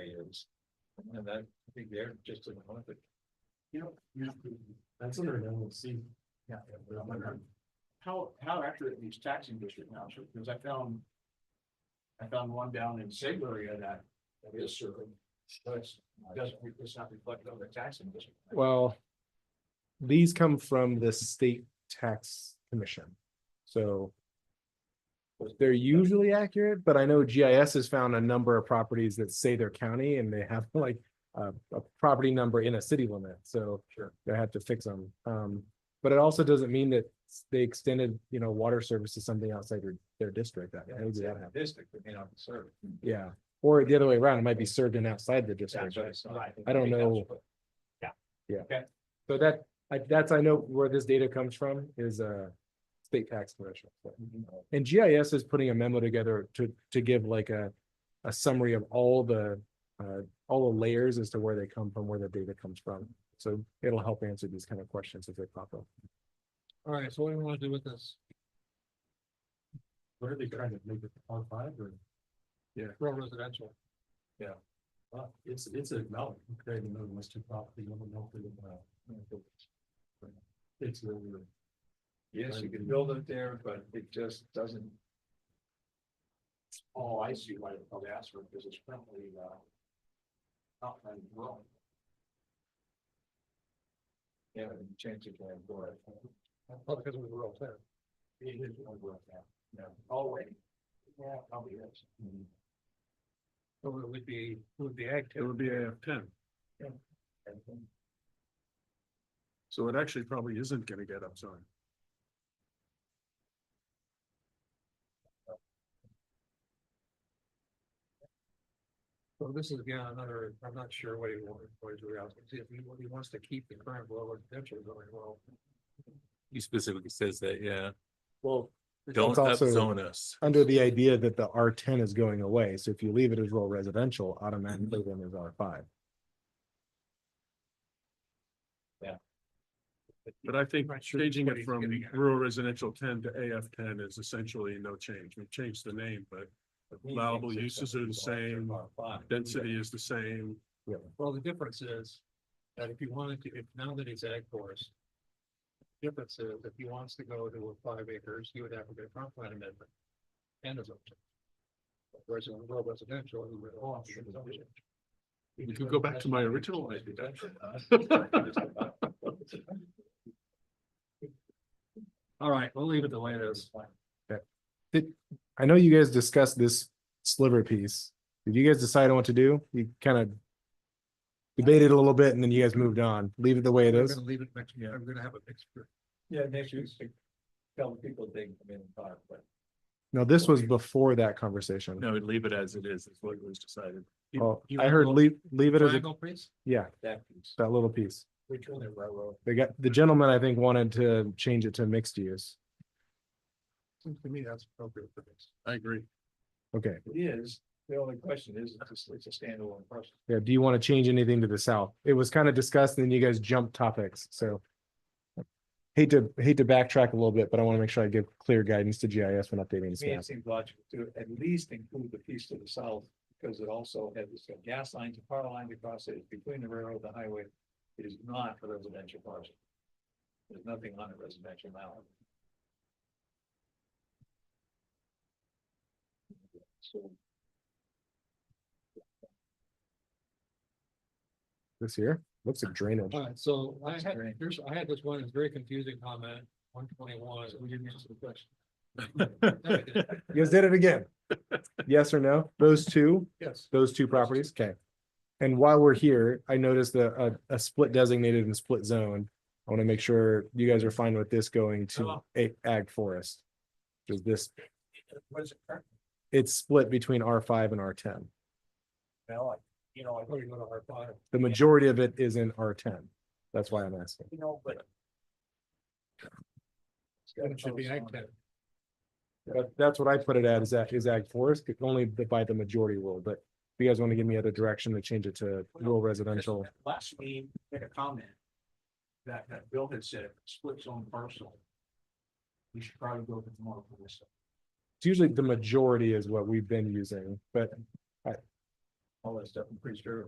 things. And that, I think they're just in one of it. You know, you know, that's under an LLC. Yeah. But I'm wondering, How, how accurate these taxing district maps are, because I found. I found one down in Sigbury that, that is certain, but it's, doesn't, it's not reflected on the taxing district. Well, these come from the state tax commission. So they're usually accurate, but I know GIS has found a number of properties that say they're county and they have like a, a property number in a city limit, so Sure. they have to fix them. Um, but it also doesn't mean that they extended, you know, water service to something outside their, their district. That- maybe that happened. District, but may not serve. Yeah, or the other way around, it might be served in outside the district, but I don't know. So that, I, that's, I know where this data comes from is a state tax commission. And GIS is putting a memo together to, to give like a, a summary of all the, uh, all the layers as to where they come from, where the data comes from. So it'll help answer these kind of questions if they pop up. All right, so what do we want to do with this? What are they trying to make it R five or? Rural residential. Uh, it's, it's a mountain, creating another listed property, I don't know if they, uh. It's really. Yes, you can build it there, but it just doesn't, Oh, I see why they probably asked for it, because it's currently, uh. Not very growing. you know, change it going forward. Probably because it was a rural town. It is a rural town, yeah, already. Yeah, probably is. Mm-hmm. So it would be, it would be active. It would be a ten. Yeah. So it actually probably isn't gonna get upzoned. So this is again another, I'm not sure what he wants, what he's really asking, See if he, what he wants to keep the current rural residential going, well. He specifically says that, yeah, Well. don't It's also- upzone us. Under the idea that the R ten is going away, so if you leave it as rural residential, automatically then there's R five. But I think Right, sure, changing what it he's from getting at. rural residential ten to AF ten is essentially no change. We changed the name, but Allowable uses are the same, density is the same. Well, the difference is that if you wanted to, if now that he's ag forest. Difference is if he wants to go to a five acres, he would have to get a comp plan amendment. And a zone. change. Whereas in rural residential, he would all have to get a zone change. We could go back to my original idea. All right, we'll leave it the way it is. I know you guys discussed this sliver piece. Did you guys decide on what to do? You kind of debated a little bit and then you guys moved on. Leave it the way it We're is. gonna leave it next, year. I'm gonna have a mixture. Yeah, next year, tell people they can come in and talk, but. No, this was before that conversation. No, leave it as it is, is what was decided. Oh, I heard leave, leave it as a, Triangle, please? yeah, That piece. that little piece. Which one, the railroad? They got, the gentleman, I think, wanted to change it to mixed use. Seems to me that's appropriate for this. I agree. Okay, It is, the only question is, it's a- it's a standalone person. yeah, do you want to change anything to the south? It was kind of discussed and then you guys jumped topics, so. Hate to, hate to backtrack a little bit, but I want to make sure I give clear guidance to GIS when updating this To me, map. it seems logical to at least include the piece to the south, because it also has its gas lines, and power lines across it, it's between the railroad and the highway. It is not a residential parcel. There's nothing on it residential now. So, This here, looks like drainage. All right, so I had, Great. here's, I had this one, it's very confusing comment, one twenty-one, we didn't answer the question. You guys did it again. Yes or no? Those two, Yes. those two properties? Okay. And while we're here, I noticed a, a, a split designated and split zone. I want to make sure you guys are fine with this going to a- ag forest. Is this, What is it currently? it's split between R five and R ten. Well, I- you know, I probably go to our bottom, The majority of it is in R ten. That's why I'm asking. you know, but. it should be ag tech. That, that's what I put it at is that is ag forest, only by the majority rule, but if you guys want to give me other direction to change it to rural residential. Last meeting, made a comment. That, that Bill had said, split zone parcel. We should probably go with more for this. it's usually the majority is what we've been using, but I, all that stuff, I'm pretty sure